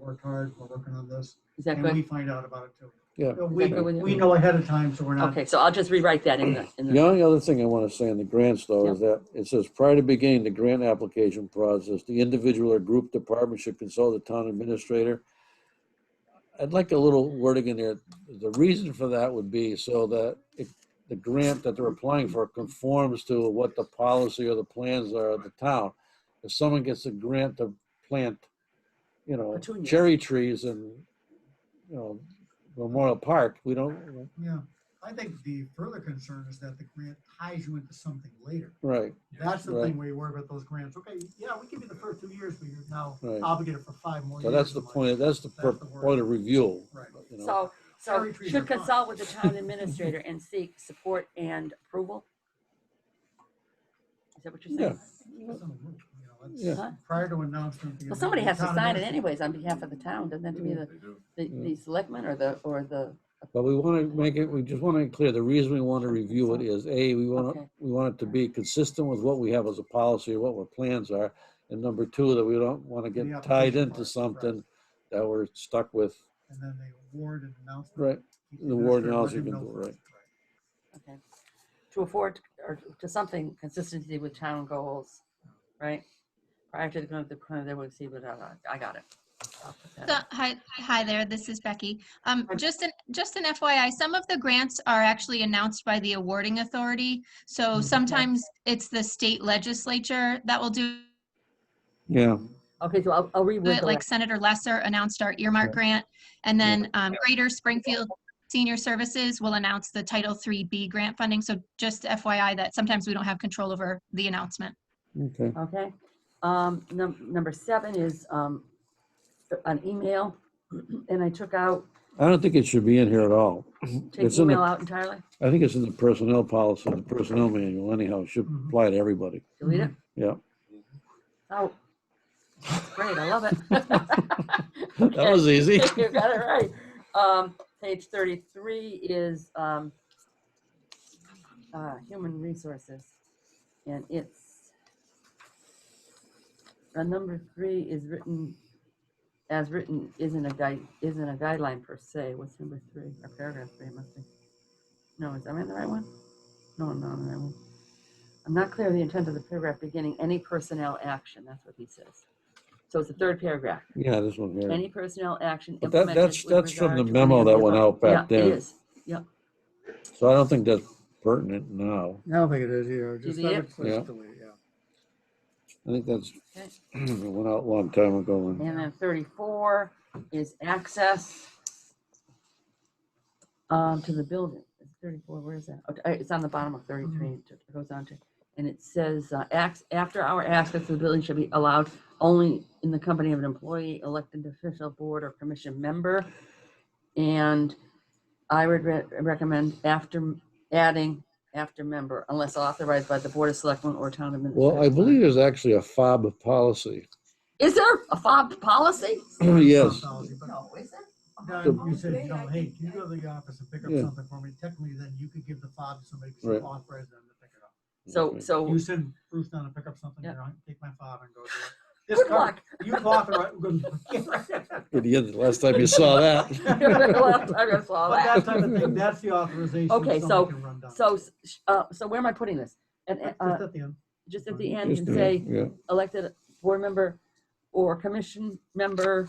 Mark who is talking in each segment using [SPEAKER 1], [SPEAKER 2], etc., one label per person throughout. [SPEAKER 1] worked hard, we're working on this,
[SPEAKER 2] Is that
[SPEAKER 1] and we
[SPEAKER 2] good?
[SPEAKER 1] find out about it too.
[SPEAKER 3] Yeah.
[SPEAKER 1] Uh, We,
[SPEAKER 2] Is that good with you?
[SPEAKER 1] we know ahead of time, so we're not,
[SPEAKER 2] Okay, so I'll just rewrite that in the, in
[SPEAKER 3] The
[SPEAKER 2] the,
[SPEAKER 3] only other thing I want to say on the grants though is that it says prior to beginning the grant application process, the individual or group department should consult the town administrator. I'd like a little wording in there. The reason for that would be so that it- the grant that they're applying for conforms to what the policy or the plans are of the town. If someone gets a grant to plant, you know,
[SPEAKER 2] Petunias.
[SPEAKER 3] cherry trees in, you know, Memorial Park, we don't,
[SPEAKER 1] yeah. I think the further concern is that the grant ties you into something later.
[SPEAKER 3] right,
[SPEAKER 1] That's the
[SPEAKER 3] Right.
[SPEAKER 1] thing where you worry about those grants. Okay, yeah, we give you the first two years, but you're now
[SPEAKER 3] Right.
[SPEAKER 1] obligated for five more
[SPEAKER 3] So
[SPEAKER 1] years.
[SPEAKER 3] that's the
[SPEAKER 1] or like-
[SPEAKER 3] point, that's the
[SPEAKER 1] That's
[SPEAKER 3] pur-
[SPEAKER 1] the word.
[SPEAKER 3] point of review.
[SPEAKER 1] Right.
[SPEAKER 3] you know.
[SPEAKER 2] so, so
[SPEAKER 1] Cherry trees are
[SPEAKER 2] should
[SPEAKER 1] fine.
[SPEAKER 2] consult with the town administrator and seek support and approval? Is that what you're saying?
[SPEAKER 1] That's not a rule, you know, that's-
[SPEAKER 3] Yeah.
[SPEAKER 2] Huh?
[SPEAKER 1] Prior to announcement. the
[SPEAKER 2] Well, somebody has
[SPEAKER 1] amendment,
[SPEAKER 2] to
[SPEAKER 1] town
[SPEAKER 2] sign it
[SPEAKER 1] administrator-
[SPEAKER 2] anyways on behalf of the town, doesn't that have to be the, the, the selectmen or the, or the,
[SPEAKER 3] But we want to make it, we just want to make clear, the reason we want to review it is, A, we want
[SPEAKER 2] Okay.
[SPEAKER 3] to, we want it to be consistent with what we have as a policy, what our plans are. And number two, that we don't want to
[SPEAKER 1] The
[SPEAKER 3] get tied
[SPEAKER 1] application
[SPEAKER 3] into
[SPEAKER 1] part,
[SPEAKER 3] something that we're stuck with.
[SPEAKER 1] And then they award an announcement.
[SPEAKER 3] Right,
[SPEAKER 1] Keep
[SPEAKER 3] the award
[SPEAKER 1] administrator
[SPEAKER 3] announcement
[SPEAKER 1] letting
[SPEAKER 3] can
[SPEAKER 1] them
[SPEAKER 3] do it,
[SPEAKER 1] know
[SPEAKER 3] right.
[SPEAKER 1] first,
[SPEAKER 2] okay. To afford, or to something consistency with town goals, right? Prior to the, the, they would see, but I got it. I'll put that in.
[SPEAKER 4] So, hi, hi there, this is Becky. Um,
[SPEAKER 2] Hi.
[SPEAKER 4] just an, just an FYI, some of the grants are actually announced by the awarding authority. So sometimes it's the state legislature that will do
[SPEAKER 3] Yeah,
[SPEAKER 2] Okay, so I'll, I'll reword
[SPEAKER 4] it,
[SPEAKER 2] the
[SPEAKER 4] like Senator Lesser announced our earmark grant. And then, um, Greater Springfield Senior Services will announce the Title III B grant funding. So just FYI that sometimes we don't have control over the announcement.
[SPEAKER 3] okay.
[SPEAKER 2] Okay, um, num- number seven is, um, an email, and I took out,
[SPEAKER 3] I don't think it should be in here at all.
[SPEAKER 2] take
[SPEAKER 3] It's in the-
[SPEAKER 2] email out entirely,
[SPEAKER 3] I think it's in the personnel policy, the personnel manual anyhow, it should
[SPEAKER 1] Mhm.
[SPEAKER 3] apply to everybody.
[SPEAKER 2] delete it,
[SPEAKER 3] Yeah.
[SPEAKER 2] oh. Great, I love it.
[SPEAKER 3] That was
[SPEAKER 2] Okay,
[SPEAKER 3] easy.
[SPEAKER 2] You got it right. Um, page thirty-three is, um, uh, human resources, and it's, uh, number three is written, as written, isn't a guide, isn't a guideline per se. What's number three, or paragraph three, it must be. No, is, am I in the right one? No, I'm not in the right one. I'm not clear of the intent of the paragraph beginning, any personnel action, that's what he says. So it's the third paragraph.
[SPEAKER 3] Yeah, this one here.
[SPEAKER 2] Any personnel action
[SPEAKER 3] But that-
[SPEAKER 2] implemented.
[SPEAKER 3] that's-
[SPEAKER 2] with
[SPEAKER 3] that's from
[SPEAKER 2] regard
[SPEAKER 3] the
[SPEAKER 2] to any
[SPEAKER 3] memo
[SPEAKER 2] of
[SPEAKER 3] that
[SPEAKER 2] the
[SPEAKER 3] went
[SPEAKER 2] above.
[SPEAKER 3] out back
[SPEAKER 2] Yeah, it
[SPEAKER 3] then.
[SPEAKER 2] is.
[SPEAKER 3] So I don't think that's pertinent now.
[SPEAKER 1] right. I don't think it is here. Just
[SPEAKER 2] Delete
[SPEAKER 1] I
[SPEAKER 2] it?
[SPEAKER 1] would just
[SPEAKER 3] Yeah.
[SPEAKER 1] delete, yeah.
[SPEAKER 3] I think that's, it went out a long time ago. and-
[SPEAKER 2] And then thirty-four is access um, to the building. It's Thirty-four, where is that? Oh, uh, It's on the bottom of thirty-three. It it goes on to, and it says, uh, acts, after our access to the building should be allowed only in the company of an employee, elected official, board or commission member. And I would re- recommend after adding after member unless authorized by the board of selectmen or town administrator.
[SPEAKER 3] Well, I believe there's actually a fob policy.
[SPEAKER 2] Is there a fob policy?
[SPEAKER 3] Oh, Yes.
[SPEAKER 1] Policy, but
[SPEAKER 2] No, is there?
[SPEAKER 1] Don, you said, you know, hey, can you go to the office and pick up
[SPEAKER 3] Yeah.
[SPEAKER 1] something for me? Technically, then you could give the fob to somebody because
[SPEAKER 3] Right.
[SPEAKER 1] you authorized them to pick it up.
[SPEAKER 2] So, so,
[SPEAKER 1] You send Bruce down to pick up something,
[SPEAKER 2] Yeah.
[SPEAKER 1] you know, take my fob and go do it. This
[SPEAKER 2] good
[SPEAKER 1] car-
[SPEAKER 2] luck.
[SPEAKER 1] You authorized, good-
[SPEAKER 3] Yeah, the last time you saw
[SPEAKER 2] Last
[SPEAKER 3] that.
[SPEAKER 2] time I saw
[SPEAKER 1] but that
[SPEAKER 2] that.
[SPEAKER 1] type of thing, that's the authorization.
[SPEAKER 2] Okay,
[SPEAKER 1] someone
[SPEAKER 2] so-
[SPEAKER 1] can run down.
[SPEAKER 2] So, s- sh- uh, so where am I putting this? And, uh,
[SPEAKER 1] Just
[SPEAKER 2] uh,
[SPEAKER 1] at the end.
[SPEAKER 2] just at the end, you
[SPEAKER 3] Just
[SPEAKER 2] can
[SPEAKER 3] do
[SPEAKER 2] say
[SPEAKER 3] it, Yeah,
[SPEAKER 2] elected board member or commission member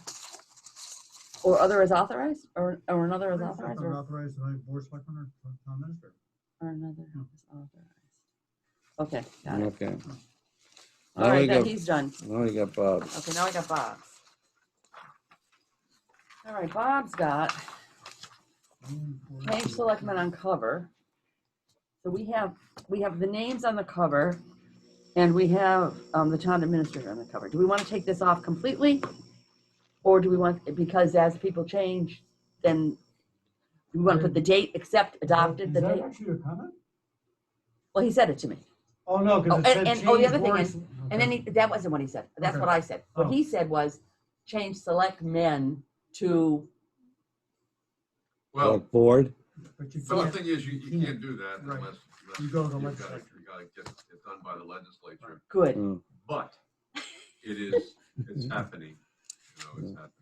[SPEAKER 2] or other is authorized, or, or another is authorized, or,
[SPEAKER 1] Authorized by board selectmen or town administrator.
[SPEAKER 2] or another is authorized. Okay, got it.
[SPEAKER 3] okay.
[SPEAKER 2] All
[SPEAKER 3] Now we
[SPEAKER 2] right, then
[SPEAKER 3] got,
[SPEAKER 2] he's done.
[SPEAKER 3] now we got Bob.
[SPEAKER 2] Okay, now I got Bob's. All right, Bob's got Page selectmen on cover. So we have, we have the names on the cover and we have um, the town administrator on the cover. Do we want to take this off completely? Or do we want, because as people change, then we want to put the date, except adopted the
[SPEAKER 1] Is that
[SPEAKER 2] date?
[SPEAKER 1] actually a comment?
[SPEAKER 2] Well, he said it to me.
[SPEAKER 1] Oh, no,
[SPEAKER 2] Oh,
[SPEAKER 1] because it
[SPEAKER 2] and-
[SPEAKER 1] said.
[SPEAKER 2] and- oh, the
[SPEAKER 1] change
[SPEAKER 2] other thing
[SPEAKER 1] board-
[SPEAKER 2] is- And then he, that wasn't what he said. That's
[SPEAKER 1] Okay.
[SPEAKER 2] what I said. What
[SPEAKER 1] Oh.
[SPEAKER 2] he said was change select men to,
[SPEAKER 5] Well,
[SPEAKER 3] Like Board,
[SPEAKER 1] But you
[SPEAKER 5] the one
[SPEAKER 1] can't,
[SPEAKER 5] thing is, you, you
[SPEAKER 1] Yeah.
[SPEAKER 5] can't do that
[SPEAKER 1] Right.
[SPEAKER 5] unless. unless
[SPEAKER 1] You go to the
[SPEAKER 5] you've gotta-
[SPEAKER 1] legislature.
[SPEAKER 5] You gotta get it done by the legislature,
[SPEAKER 2] good.
[SPEAKER 3] uh,
[SPEAKER 5] but it is, it's happening, you know, it's happening.